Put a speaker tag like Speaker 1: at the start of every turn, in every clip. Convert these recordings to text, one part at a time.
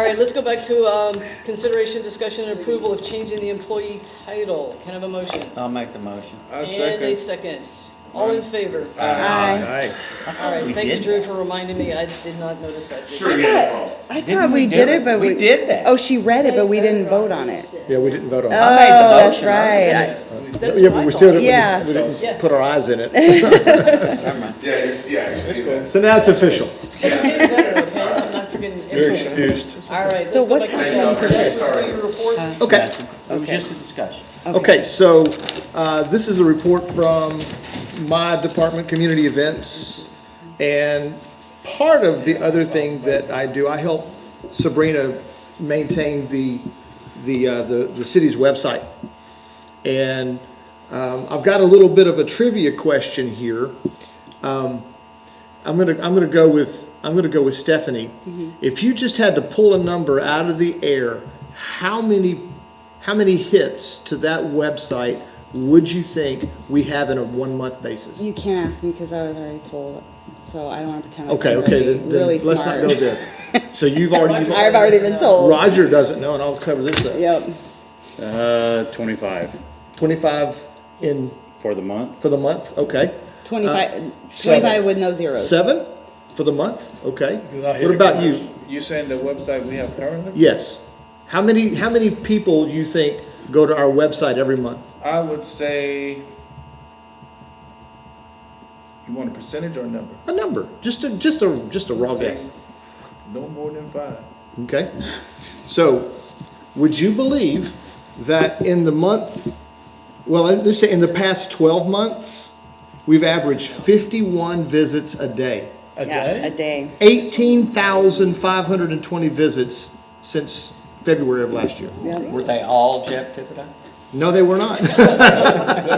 Speaker 1: right, let's go back to um, consideration, discussion, and approval of changing the employee title. Can I have a motion?
Speaker 2: I'll make the motion.
Speaker 3: I
Speaker 1: And a
Speaker 3: second.
Speaker 1: second. All in favor?
Speaker 4: Aye.
Speaker 3: Aye.
Speaker 1: All right,
Speaker 2: We
Speaker 1: thank you,
Speaker 2: did
Speaker 1: Drew, for reminding me. I did not notice that. Did
Speaker 5: Sure,
Speaker 1: you?
Speaker 5: yeah, no problem.
Speaker 4: I
Speaker 2: Didn't
Speaker 4: thought we
Speaker 2: do
Speaker 4: did it, but we.
Speaker 2: We did that.
Speaker 4: Oh, she read it, but we didn't vote on it.
Speaker 6: Yeah, we didn't vote on
Speaker 4: Oh,
Speaker 6: it.
Speaker 2: made the
Speaker 4: that's
Speaker 2: motion, I
Speaker 4: right.
Speaker 1: That's that's
Speaker 6: Yeah,
Speaker 1: what
Speaker 6: but
Speaker 1: I
Speaker 6: we still
Speaker 1: thought.
Speaker 6: didn't, we
Speaker 4: Yeah.
Speaker 6: didn't- we didn't
Speaker 1: Yeah.
Speaker 6: put our eyes in it.
Speaker 5: Yeah, he's, yeah, he's.
Speaker 6: So now it's official.
Speaker 1: Get better, okay? I'm not forgetting everything.
Speaker 6: excused.
Speaker 1: All right, let's
Speaker 4: So
Speaker 1: go back
Speaker 4: what's
Speaker 1: to
Speaker 5: happening
Speaker 1: Jeff.
Speaker 5: today?
Speaker 1: Jeff, let's do your report.
Speaker 6: Okay,
Speaker 2: Gotcha. It was just a discussion.
Speaker 6: okay, so uh, this is a report from my department, Community Events. And part of the other thing that I do, I help Sabrina maintain the, the, uh, the the city's website. And um, I've got a little bit of a trivia question here. Um, I'm gonna, I'm gonna go with, I'm gonna go with Stephanie.
Speaker 4: Mm-hmm.
Speaker 6: If you just had to pull a number out of the air, how many, how many hits to that website would you think we have in a one-month basis?
Speaker 4: You can't ask me because I was already told, so I don't want to pretend like
Speaker 6: Okay,
Speaker 4: I'm
Speaker 6: okay,
Speaker 4: really,
Speaker 6: then,
Speaker 4: really
Speaker 6: then let's not go
Speaker 4: smart.
Speaker 6: there. So you've already, you've
Speaker 4: I've
Speaker 6: already-
Speaker 4: already been told.
Speaker 6: Roger doesn't know, and I'll cover this up.
Speaker 4: Yep.
Speaker 7: Uh, twenty-five
Speaker 6: Twenty-five in,
Speaker 7: for the month.
Speaker 6: for the month, okay.
Speaker 4: 25,
Speaker 6: Uh, seven.
Speaker 4: 25 with no zeros.
Speaker 6: Seven for the month, okay. What about you?
Speaker 3: You saying the website we have currently?
Speaker 6: Yes. How many, how many people you think go to our website every month?
Speaker 3: I would say, you want a percentage or a number?
Speaker 6: A number, just a, just a, just a raw guess,
Speaker 3: No more than five.
Speaker 6: okay? So, would you believe that in the month, well, let's say in the past twelve months, we've averaged fifty-one visits a day.
Speaker 3: A
Speaker 4: Yeah, a day.
Speaker 6: Eighteen thousand five hundred and twenty visits since February of last year.
Speaker 2: Were they all Jeff Tippett?
Speaker 6: No, they were not.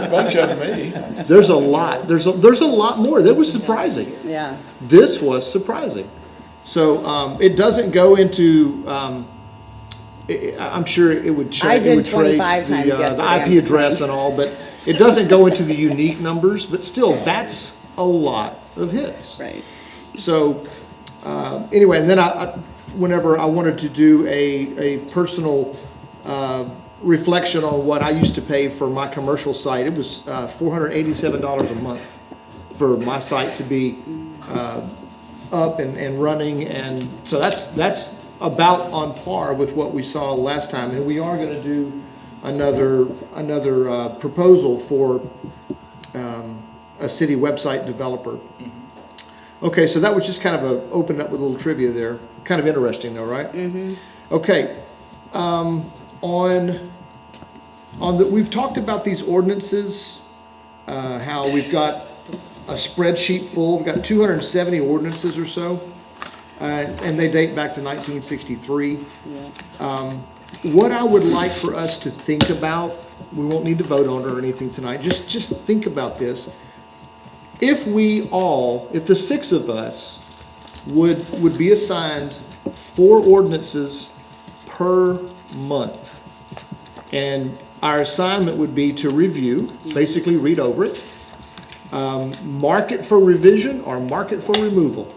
Speaker 3: Bunch of me.
Speaker 6: There's a lot, there's, a there's a lot more. That was surprising.
Speaker 4: Yeah.
Speaker 6: this was surprising. So um, it doesn't go into. Um, i I- I'm sure it would. Tra-
Speaker 4: I
Speaker 6: it
Speaker 4: did
Speaker 6: would trace
Speaker 4: 25
Speaker 6: the,
Speaker 4: times yesterday,
Speaker 6: uh,
Speaker 4: I'm
Speaker 6: the IP
Speaker 4: just
Speaker 6: address
Speaker 4: saying.
Speaker 6: and all, but it doesn't go into the unique numbers. But still, that's a lot of hits.
Speaker 4: Right.
Speaker 6: So, uh, anyway, and then I, I, whenever I wanted to do a, a personal, uh, reflection on what I used to pay for my commercial site, it was, uh, four hundred eighty-seven dollars a month for my site to be, uh, up and, and running, and so that's, that's about on par with what we saw last time, and we are gonna do another, another, uh, proposal for, um, a city website developer. Okay, so that was just kind of a, opened up with a little trivia there. Kind of interesting though, right? Mm-hmm. Okay, um, on, on the, we've talked about these ordinances, uh, how we've got a spreadsheet full, we've got two hundred and seventy ordinances or so. Uh, and they date back to nineteen sixty-three. Um, What I would like for us to think about, we won't need to vote on it or anything tonight, just, just think about this if we all, if the six of us would, would be assigned four ordinances per month, and our assignment would be to review, basically read over it, um, mark it for revision or mark it for removal.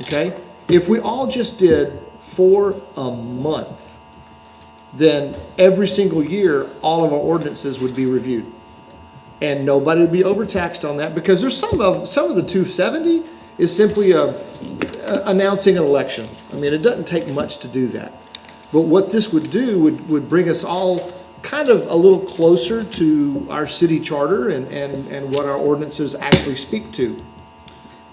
Speaker 6: Okay? If we all just did four a month, then every single year, all of our ordinances would be reviewed and nobody would be overtaxed on that because there's some of some of the 270 is simply a, a- announcing an election. I mean, it doesn't take much to do that. But what this would do would, would bring us all kind of a little closer to our city charter and, and, and what our ordinances actually speak to.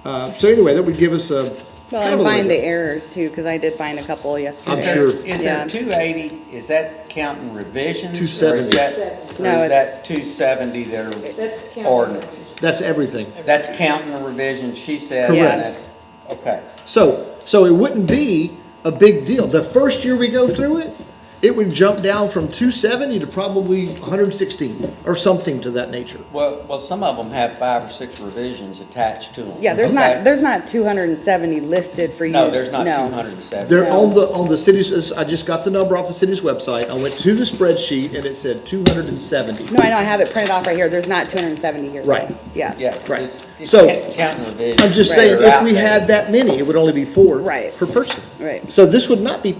Speaker 6: Uh, so anyway, that would give us a kind
Speaker 4: Well,
Speaker 6: of a
Speaker 4: I find the
Speaker 6: leg up.
Speaker 4: errors too, because I did find a couple
Speaker 6: I'm
Speaker 4: yesterday.
Speaker 6: sure.
Speaker 2: Is
Speaker 4: Yeah.
Speaker 2: there two eighty, is that counting revisions?
Speaker 6: 270.
Speaker 4: No,
Speaker 2: Or is that
Speaker 4: it's-
Speaker 2: two seventy that
Speaker 8: That's counting.
Speaker 2: are ordinances?
Speaker 6: That's everything.
Speaker 2: That's counting the revisions, she said. and
Speaker 6: Correct.
Speaker 2: that's- Okay.
Speaker 6: So, so it wouldn't be a big deal. The first year we go through it, it would jump down from two seventy to probably one hundred and sixteen or something to that nature.
Speaker 2: Well, well, some of them have five or six revisions attached to them.
Speaker 4: Yeah, there's
Speaker 2: Okay.
Speaker 4: not, there's not 270 listed for you.
Speaker 2: No, there's not two
Speaker 4: no.
Speaker 2: hundred and seventy.
Speaker 6: They're on the, on the city's, I just got the number off the city's website. I went to the spreadsheet and it said two hundred and seventy.
Speaker 4: No, I know, I have it printed off right here. There's not 270 here.
Speaker 6: Right.
Speaker 4: Yeah.
Speaker 2: Yeah.
Speaker 6: Right.
Speaker 2: it's- it's
Speaker 6: So-
Speaker 2: ca- Counting revisions.
Speaker 6: I'm just
Speaker 2: that
Speaker 6: saying,
Speaker 2: are
Speaker 6: if
Speaker 2: out
Speaker 6: we
Speaker 2: there.
Speaker 6: had that many, it would only be four
Speaker 4: Right.
Speaker 6: per person.
Speaker 4: Right.
Speaker 6: So this would not be